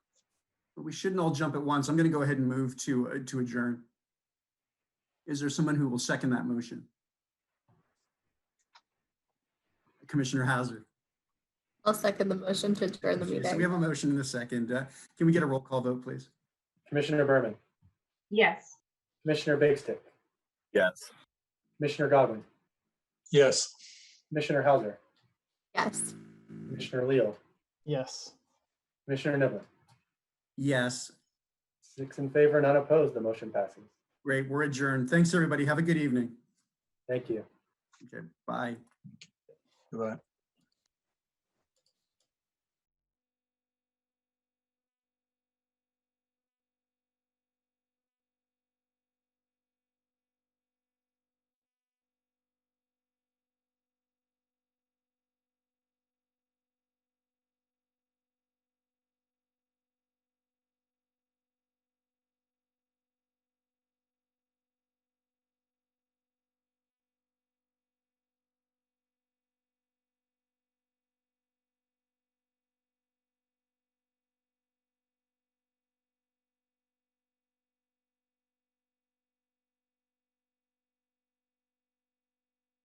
we shouldn't all jump at once. I'm going to go ahead and move to, uh, to adjourn. Is there someone who will second that motion? Commissioner Hazard. I'll second the motion to adjourn the So we meeting. have a motion in a second. Uh, Can we get a roll call vote, please? Commissioner Berman, Yes. Commissioner Bakestick, Yes. Commissioner Godwin, Yes. Commissioner Hauser, Yes. Commissioner Leal, Yes. Commissioner Niblin. Yes, Six in favor, none opposed, the motion passes. great. We're adjourned. Thanks, everybody. Have a good evening. Thank you. Okay, bye. Goodbye.